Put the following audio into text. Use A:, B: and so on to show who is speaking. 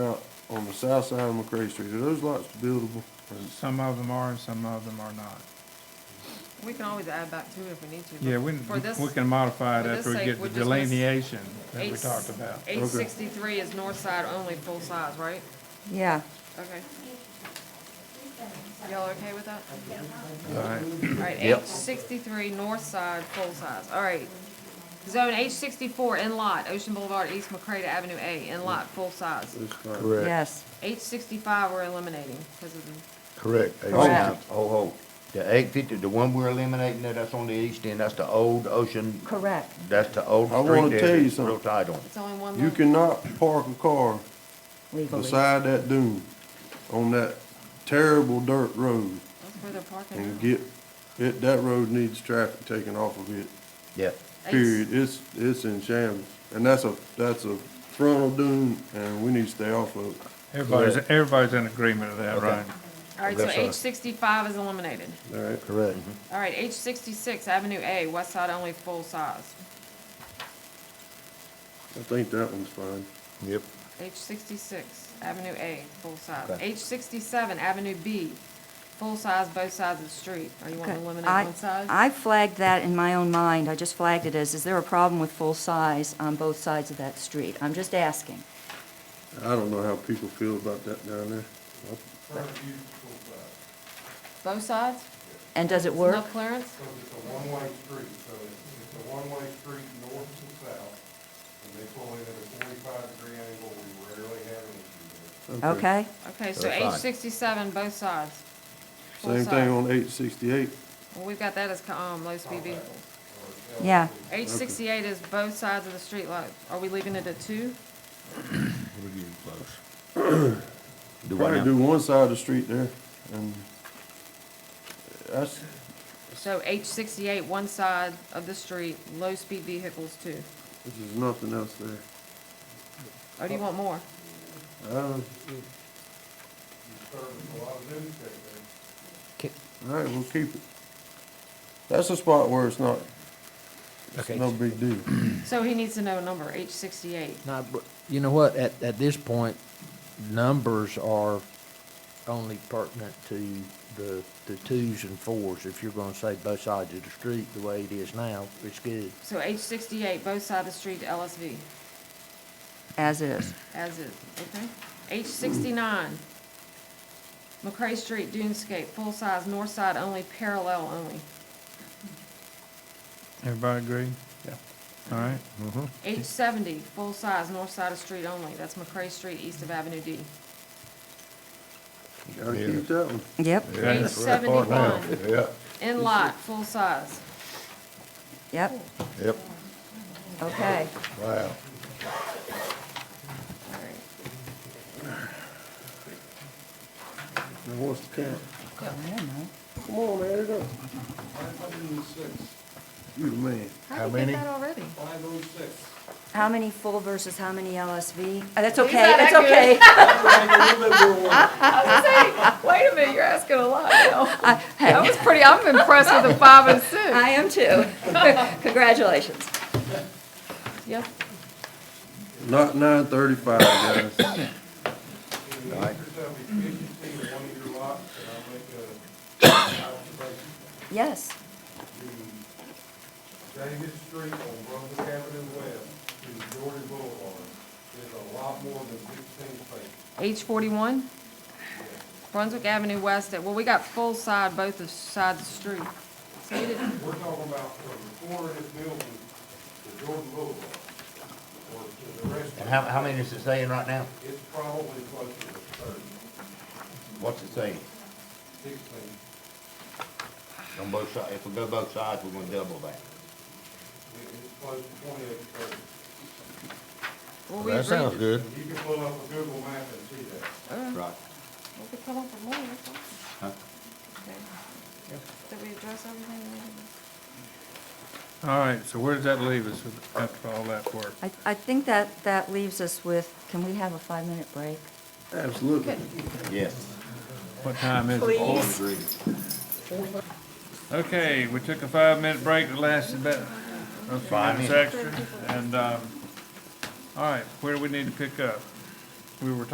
A: south, on the south side of McCray Street, are those lots buildable? Or-
B: Some of them are and some of them are not.
C: We can always add back to it if we need to. but
B: Yeah, we,
C: For this,
B: we can modify it
C: for this
B: after we
C: sake,
B: get
C: we
B: the
C: just must-
B: delineation that we
C: eight,
B: talked about.
C: eight sixty-three is north side only, full size, right?
D: Yeah,
C: Okay. Y'all okay with that?
B: All right.
C: All right, H
E: Yep.
C: sixty-three, north side, full size, all right. Zone H sixty-four, in lot, Ocean Boulevard, East McCrata Avenue A, in lot, full size.
A: those lots?
E: Correct.
D: yes.
C: H sixty-five, we're eliminating, because of the,
E: Correct.
D: Correct.
E: Oh, oh, the eight fifty, the one we're eliminating, there, that's on the east end, that's the old ocean,
D: Correct.
E: that's the old
A: I
E: street there.
A: wanna tell you
E: that's
A: something.
E: Real tight on it.
C: it's only one.
A: You
C: lot.
A: cannot park a car
D: Legally.
A: beside that dune on that terrible dirt road
C: That's where they're parking.
A: and
C: now.
A: get, it, that road needs traffic taken off of it.
E: Yeah,
C: H-
A: Period. It's, it's in shambles. And that's a, that's a frontal dune and we need to stay off of it.
B: Everybody's, everybody's in agreement of that,
E: Okay.
B: right?
C: All right, so
E: That's right.
C: H sixty-five is eliminated.
A: All right.
E: correct.
C: All right, H sixty-six, Avenue A, west side only, full size.
A: I think that one's fine.
E: Yep.
C: H sixty-six, Avenue A, full size.
E: Okay.
C: H sixty-seven, Avenue B, full size, both sides of the street. Are you wanting to eliminate
D: I-
C: one side?
D: I flagged that in my own mind, I just flagged it as, is there a problem with full size on both sides of that street? I'm just asking.
A: I don't know how people feel about that down there.
F: uh,
C: Both sides?
D: And does it
C: No
D: work?
C: clearance?
F: Because it's a one-way street, so it's, it's a one-way street north to south, and they pull in at a forty-five degree angle, we rarely have an issue there.
D: Okay,
C: Okay, so
E: They're
C: H
E: fine.
C: sixty-seven, both sides. Full
A: Same
C: size.
A: thing on eight sixty-eight.
C: Well, we've got that as, co- um, low speed vehicles.
D: yeah.
C: H sixty-eight is both sides of the street light. Are we leaving it at two?
E: Do I
A: Probably
E: now?
A: do one side of the street there and that's,
C: So H sixty-eight, one side of the street, low speed vehicles two.
A: this is nothing else there.
C: Or do you want more?
A: Uh, all right, we'll keep it. That's a spot where it's not, it's
G: Okay.
A: no big deal.
C: So he needs to know a number, H sixty-eight.
G: Now, but you know what, at, at this point, numbers are only pertinent to the, the twos and fours. If you're gonna say both sides of the street the way it is now, it's good.
C: So H sixty-eight, both side of the street to LSV,
D: As is.
C: as is, okay? H sixty-nine, McCray Street, Dunescape, full size, north side only, parallel only.
B: Everybody agree?
E: Yeah.
B: All right.
C: H seventy, full size, north side of street only, that's McCray Street, east of Avenue D.
A: Gotta keep that one.
D: Yep,
C: H seventy-one,
F: Yeah,
C: in lot, full size.
D: yep,
F: yep,
D: okay.
F: wow.
A: Now, what's the count?
D: I don't know.
A: Come on, add it up. You the man.
C: How did you get that already?
F: Five oh six.
D: How many full versus how many LSV? Uh, That's
C: He's
D: okay,
C: not
D: that's
C: that
D: okay.
C: Wait a minute, you're asking a lot now.
D: Hey,
C: was pretty, I'm impressed with the five and six.
D: I am too. Congratulations.
C: Yep,
A: Not nine thirty-five, guys.
F: In the interest of efficiency in one of your lots, and I'll make a observation,
D: Yes,
F: the David Street on Brunswick Avenue West to Jordan Boulevard is a lot more than sixteen feet.
C: H forty-one, Brunswick Avenue West, well, we got full side, both the sides of the street. So we didn't,
F: We're talking about from the corner of this building to Jordan Boulevard, or to the rest,
E: And how, how many is it saying right now?
F: it's probably closer to thirty,
E: What's it saying?
F: sixteen.
E: On both sides, if we go both sides, we're gonna double that.
F: It- It's close to twenty-eight, thirty.
C: well, we agreed.
E: good.
F: You can pull up a Google map and see that.
E: Right.
C: We could come up with more, that's all.
E: Huh?
C: Okay. Did we address everything?
B: All right, so where does that leave us with- after all that work?
D: I, I think that, that leaves us with, can we have a five-minute break?
A: Absolutely.
E: Yes.
B: What time is it?
E: All agreed.
B: Okay, we took a five-minute break that lasted about a few
E: Five
B: minutes extra, and, um, all right, where do we need to pick up? We were talking